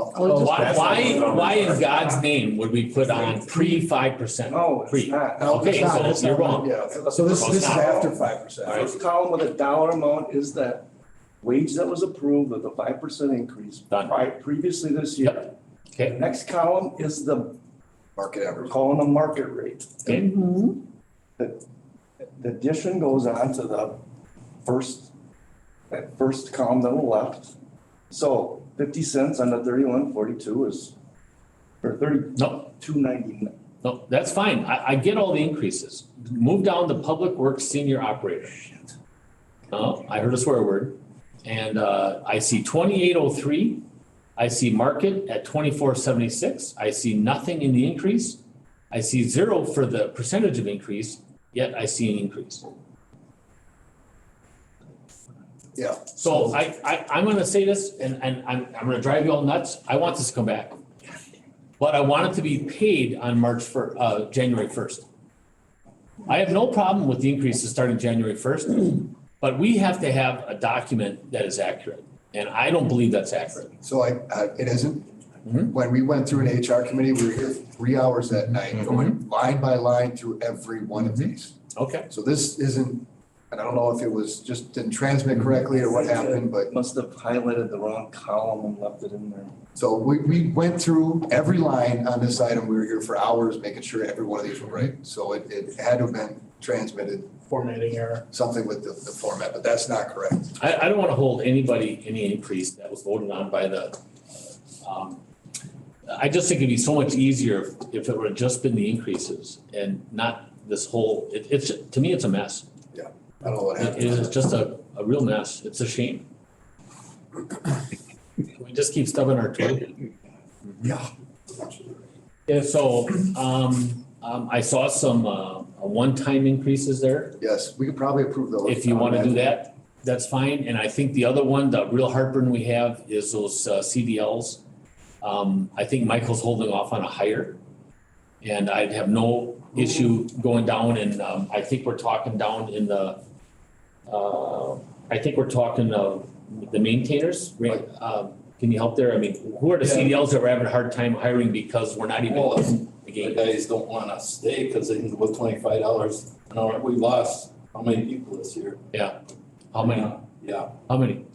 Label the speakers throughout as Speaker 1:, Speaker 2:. Speaker 1: Oh,
Speaker 2: Why,
Speaker 1: that's-
Speaker 2: why, why in God's name would we put on pre five percent?
Speaker 3: No, it's
Speaker 2: Pre.
Speaker 3: not.
Speaker 1: No,
Speaker 2: Okay,
Speaker 1: it's not.
Speaker 2: so
Speaker 1: It's
Speaker 2: you're
Speaker 1: not.
Speaker 2: wrong.
Speaker 3: Yeah.
Speaker 1: So this, this is after five
Speaker 2: All
Speaker 1: percent.
Speaker 2: right.
Speaker 3: First column with a dollar amount is that wage that was approved with the five percent increase.
Speaker 2: Done.
Speaker 3: pri- Previously this year.
Speaker 2: Okay.
Speaker 3: Next column is the,
Speaker 1: Market
Speaker 3: we're
Speaker 1: average.
Speaker 3: calling the market rate.
Speaker 2: Okay.
Speaker 3: The addition goes on to the first, that first column that we left. So fifty cents on the thirty-one forty-two is, or
Speaker 2: No.
Speaker 3: thirty-two ninety-nine.
Speaker 2: No, that's fine. I, I get all the increases. Move down to public works senior operator. No, I heard a swear word. And, uh, I see twenty-eight oh three. I see market at twenty-four seventy-six. I see nothing in the increase. I see zero for the percentage of increase, yet I see an increase.
Speaker 1: Yeah.
Speaker 2: So I, I, I'm gonna say this and, and I'm, I'm gonna drive you all nuts. I want this to come back. But I want it to be paid on March fir, uh, January first. I have no problem with the increases starting January first, but we have to have a document that is accurate. And I don't believe that's accurate.
Speaker 4: So I, I- it isn't.
Speaker 2: Mhm.
Speaker 4: When we went through an HR committee, we were here three hours that
Speaker 2: Mm-hmm.
Speaker 4: night, going line by line through every one of these.
Speaker 2: Okay.
Speaker 4: So this isn't, and I don't know if it was just didn't transmit correctly or what
Speaker 2: Mm-hmm.
Speaker 4: happened, but
Speaker 3: Must have highlighted the wrong column and left it in there.
Speaker 4: so we, we went through every line on this item. We were here for hours, making sure every one of these were right. So it, it had to have been transmitted,
Speaker 5: formatting error.
Speaker 4: something with the, the format, but that's not correct.
Speaker 2: I, I don't wanna hold anybody, any increase that was voted on by the, um, I just think it'd be so much easier if- if it would have just been the increases and not this whole, it, it's, to me, it's a mess.
Speaker 4: I don't know what
Speaker 2: It
Speaker 4: happened.
Speaker 2: is just a, a real mess. It's a shame. We just keep stubbing our toe.
Speaker 4: Yeah.
Speaker 2: Yeah, so, um, um, I saw some, uh, uh, one-time increases there.
Speaker 4: Yes, we could probably approve those.
Speaker 2: If you wanna do that, that's fine. And I think the other one, the real heartburn we have is those uh, CDLs. Um, I think Michael's holding off on a hire. And I'd have no issue going down and, um, I think we're talking down in the, uh, I think we're talking of the maintainers, right? Um, can you help there? I mean, who are the
Speaker 6: Yeah.
Speaker 2: CDLs that we're having a hard time hiring because we're not even
Speaker 6: Well,
Speaker 2: in the
Speaker 6: The
Speaker 2: game?
Speaker 6: guys don't wanna stay because they can with twenty-five dollars an hour. We lost how many people this year?
Speaker 2: How many,
Speaker 6: Yeah,
Speaker 2: how many?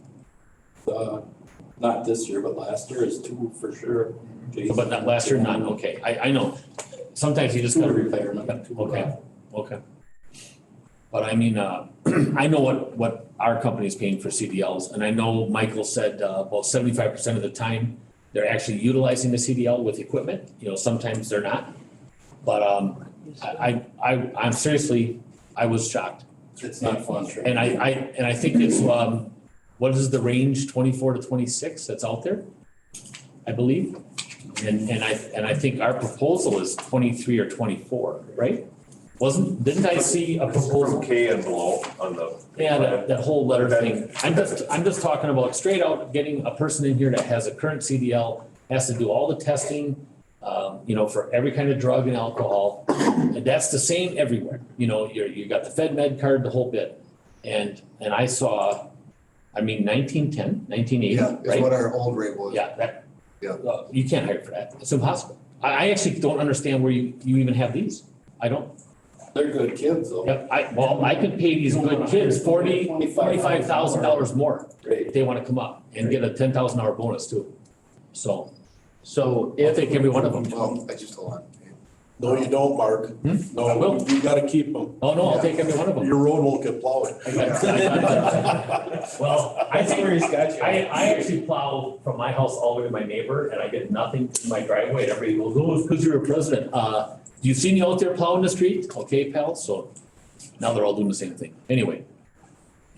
Speaker 6: uh, not this year, but last year is two for sure. Jason-
Speaker 2: But not last year, none, okay. I, I know. Sometimes you just
Speaker 6: Two
Speaker 2: gotta
Speaker 6: retirement. two uh,
Speaker 2: Okay, okay. But I mean, uh, I know what, what our company is paying for CDLs, and I know Michael said, uh, about seventy-five percent of the time, they're actually utilizing the CDL with equipment, you know, sometimes they're not. But, um, I, I, I- I'm seriously, I was shocked,
Speaker 6: It's not fun. sure.
Speaker 2: and I, I, and I think it's, um, what is the range, twenty-four to twenty-six that's out there? I believe, and, and I, and I think our proposal is twenty-three or twenty-four, right? Wasn't, didn't I see a proposal?
Speaker 7: From K and below on the.
Speaker 2: Yeah, that, that whole letter thing. I'm just, I'm just talking about straight out getting a person in here that has a current CDL, has to do all the testing, um, you know, for every kind of drug and alcohol. And that's the same everywhere. You know, you're, you got the Fed Med card, the whole bit. And, and I saw, I mean, nineteen ten, nineteen eighty,
Speaker 4: Yeah, it's
Speaker 2: right?
Speaker 4: what our old rate was.
Speaker 2: Yeah, that.
Speaker 4: Yeah.
Speaker 2: uh, You can't hire for that. It's impossible. I, I actually don't understand where you, you even have these. I don't.
Speaker 6: They're good kids though.
Speaker 2: Yep, I, well, I could pay these good kids forty, forty-five thousand dollars more
Speaker 6: Great.
Speaker 2: if they wanna come up and get a ten thousand dollar bonus too. So
Speaker 5: So
Speaker 2: I'll
Speaker 5: if,
Speaker 2: take every one of them.
Speaker 4: Well, I just hold on.
Speaker 8: No, you don't, Mark.
Speaker 2: I
Speaker 8: No,
Speaker 2: will.
Speaker 8: you gotta keep them.
Speaker 2: Oh, no, I'll take every one of them.
Speaker 8: Your road won't get plowed.
Speaker 2: I got- I got- Well, I think,
Speaker 5: he's got you.
Speaker 2: I, I actually plow from my house all the way to my neighbor and I get nothing in my driveway and everybody goes, oh, it's cause you're a president. Uh, you see me out there plowing the street? Okay, pal, so now they're all doing the same thing. Anyway.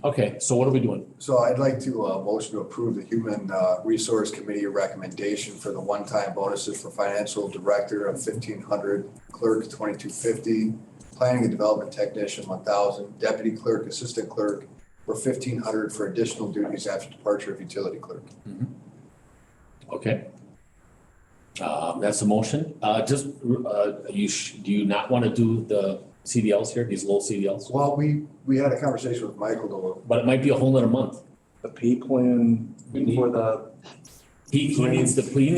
Speaker 2: Okay, so what are we doing?
Speaker 4: So I'd like to, uh, motion to approve the Human, uh, Resource Committee recommendation for the one-time bonuses for financial director of fifteen hundred, clerk twenty-two fifty, planning and development technician one thousand, deputy clerk, assistant clerk, for fifteen hundred for additional duties after departure of utility clerk.
Speaker 2: Okay. Um, that's a motion. Uh, just, uh, you sh- do you not want to do the CDLs here, these low CDLs?
Speaker 4: Well, we, we had a conversation with Michael though.
Speaker 2: But it might be a whole nother month.
Speaker 3: The pay plan
Speaker 6: We need-
Speaker 3: for the
Speaker 2: He, he needs the, he needs